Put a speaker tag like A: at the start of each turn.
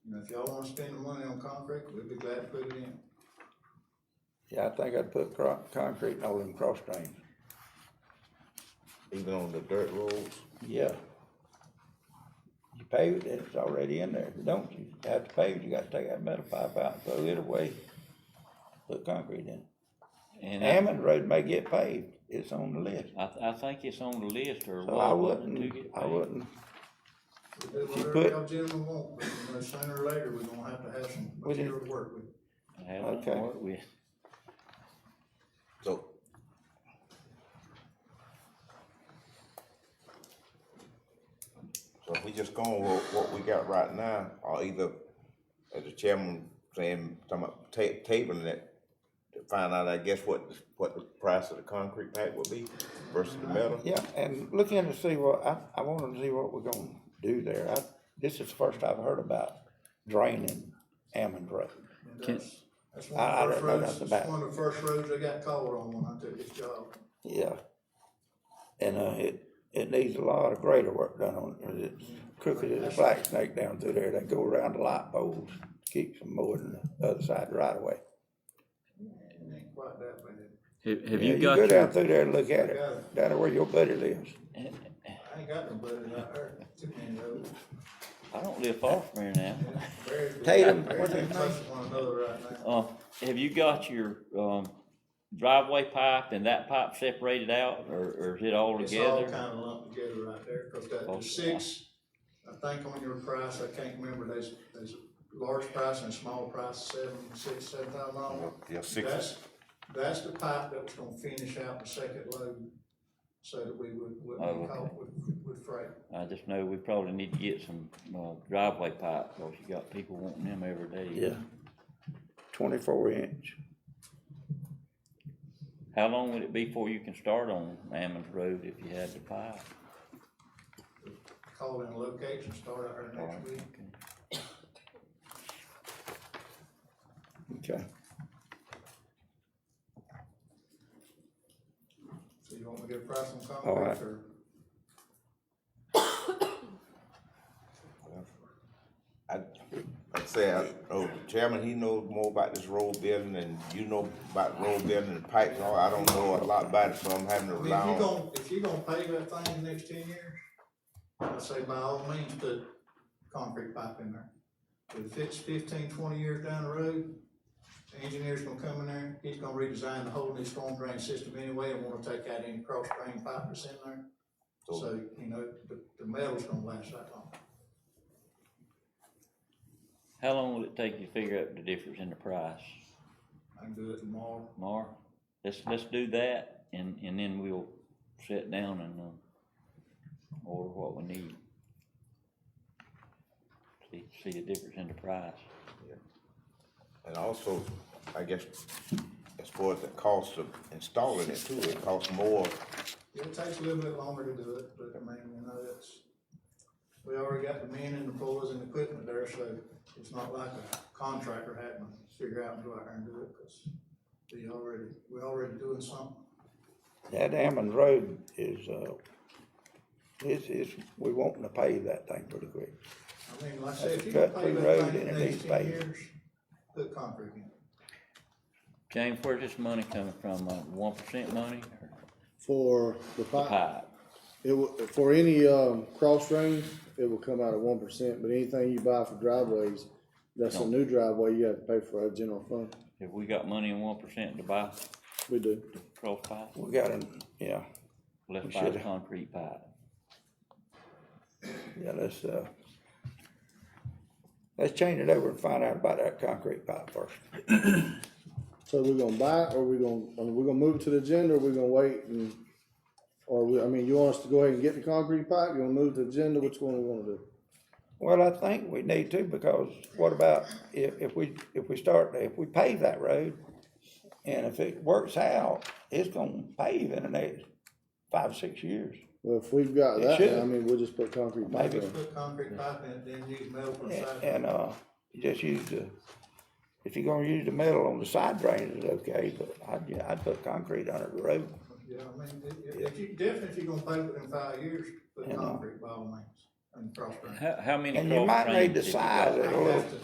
A: And if y'all wanna spend the money on concrete, we'd be glad to put it in.
B: Yeah, I think I'd put cro- concrete in all them cross drains.
C: even on the dirt roads.
B: Yeah. You pave it, it's already in there. If you don't, you have to pave, it, you gotta take that metal pipe out, and throw it away, put concrete in.
D: And I,
B: Hammond Road may get paved, it's on the list.
D: I, I think it's on the list or
B: So I
D: what, wasn't it, to
B: wouldn't,
D: get
B: I
D: paid?
B: wouldn't,
A: We'll do
B: you
A: whatever
B: put-
A: y'all gentlemen want, but you know, sooner or later, we're gonna have to have some
B: We didn't-
A: material to work with.
D: I haven't
B: Okay.
D: worked with-
C: So So if we just go on with what we got right now, or either, as the chairman saying, talking about ta- tabling it, to find out, I guess, what, the- what the price of the concrete pipe would be versus the metal.
B: yeah, and look in to see what, I, I wanna see what we're gonna do there. I, this is the first I've heard about draining Hammond Road.
A: And
D: Can-
A: that's- That's one
B: I- I
A: of the
B: don't
A: first
B: know
A: roads,
B: nothing
A: that's
B: about
A: one of the first roads I got called on when I took this job.
B: Yeah. And, uh, it, it needs a lot of greater work done on it, 'cause it's crooked as a black snake down through there, they go around the light poles, keeps them more than the other side right away.
A: It ain't quite that bad.
E: Have, have
B: Yeah,
E: you got
B: Go
E: your,
B: down through there and look at it,
A: Got it.
B: down there where your buddy lives,
A: I ain't got no budget out there, too many roads.
D: I don't live far from here now.
A: Very busy.
B: Tatum,
A: Very
B: what's his
A: busy
B: name?
A: with one another right now.
D: Uh, have you got your, um, driveway pipe and that pipe separated out or, or is it all
A: It's all
D: together?
A: kinda lumped together right there, cause that,
D: Oh, yeah.
A: there's six, I think on your price, I can't remember, there's, there's a large price and a small price, seven, six, seven thousand dollars.
C: Yeah, six,
A: That's, that's the pipe that was gonna finish out the second load, so that we would, wouldn't
D: Oh,
A: be
D: okay.
A: caught with, with freight.
D: I just know we probably need to get some, uh, driveway pipe, cause you got people wanting them every day.
B: yeah. Twenty-four inch,
D: How long would it be before you can start on Ammons Road if you had the pipe?
A: Call in location, start out here
D: All
A: next
D: right,
A: week.
D: okay.
B: okay.
A: So you want me to get a price on
B: All right.
A: concrete or?
C: I, I'd say, I, oh, the chairman, he knows more about this road building and you know about road building and pipes, and all. I don't know a lot about it, so I'm having to
A: I mean,
C: rely
A: if
C: on.
A: you're gonna, if you're gonna pave that thing in the next ten years, I'd say by all means, put concrete pipe in there. But if it's fifteen, twenty years down the road, the engineer's gonna come in there, he's gonna redesign the whole new storm drain system anyway, and wanna take out any cross drain pipe that's in there.
C: So-
A: So, you know, the, the metal's gonna last that long.
D: How long will it take you to figure out the difference in the price,
A: I can do it tomorrow,
D: Mar? Let's, let's do that and, and then we'll sit down and, um, order what we need. See, see the difference in the price.
C: And also, I guess, as far as the cost of installing it too, it costs more.
A: it takes a little bit longer to do it, but I mean, you know, it's, we already got the men and the boys and the equipment there, so it's not like a contractor having to figure out and go out there and do it, cause we already, we already doing something.
B: That Hammond Road is, uh, it's, it's, we wanting to pave that thing pretty quick.
A: I mean, like I said, if you
B: That's a
A: can pay
B: cut-through road
A: that thing in
B: and
A: the
B: it
A: next
B: needs
A: ten
B: paving.
A: years, put concrete in.
D: James, where's this money coming from? Uh, one percent money or
F: For the
D: the
F: pipe,
D: pipe?
F: it will, for any, um, cross drains, it will come out at one percent, but anything you buy for driveways, that's a new driveway, you have to pay for our general fund.
D: Have we got money in one percent to buy
F: We do.
D: cross pipe?
B: We got an, yeah,
D: Let's
B: We
D: buy the
B: should.
D: concrete pipe.
B: yeah, let's, uh, let's change it over and find out about that concrete pipe first.
F: So we're gonna buy it, or we're gonna, I mean, we're gonna move it to the agenda, or we're gonna wait and, or we, I mean, you want us to go ahead and get the concrete pipe, you wanna move to the agenda, which one we wanna do?
B: Well, I think we need to, because what about if, if we, if we start, if we pave that road, and if it works out, it's gonna pave in the next five, six years.
F: Well, if we've got
B: It
F: that,
B: should.
F: then, I mean, we'll just put concrete pipe
B: Maybe.
F: in.
A: Put concrete pipe in, it, then use metal for the
B: And,
A: siding.
B: and, uh, you just use the, if you're gonna use the metal on the side drains, it's okay, but I'd, yeah, I'd put concrete under the road.
A: Yeah, I mean, if, if you, definitely if you're gonna pay within five years, put
B: Yeah.
A: concrete by all means, and cross drain.
D: How, how many?
B: And you
D: cross
B: might need
D: drains
B: to
D: have you got?
B: size it a
A: I
B: little
A: have to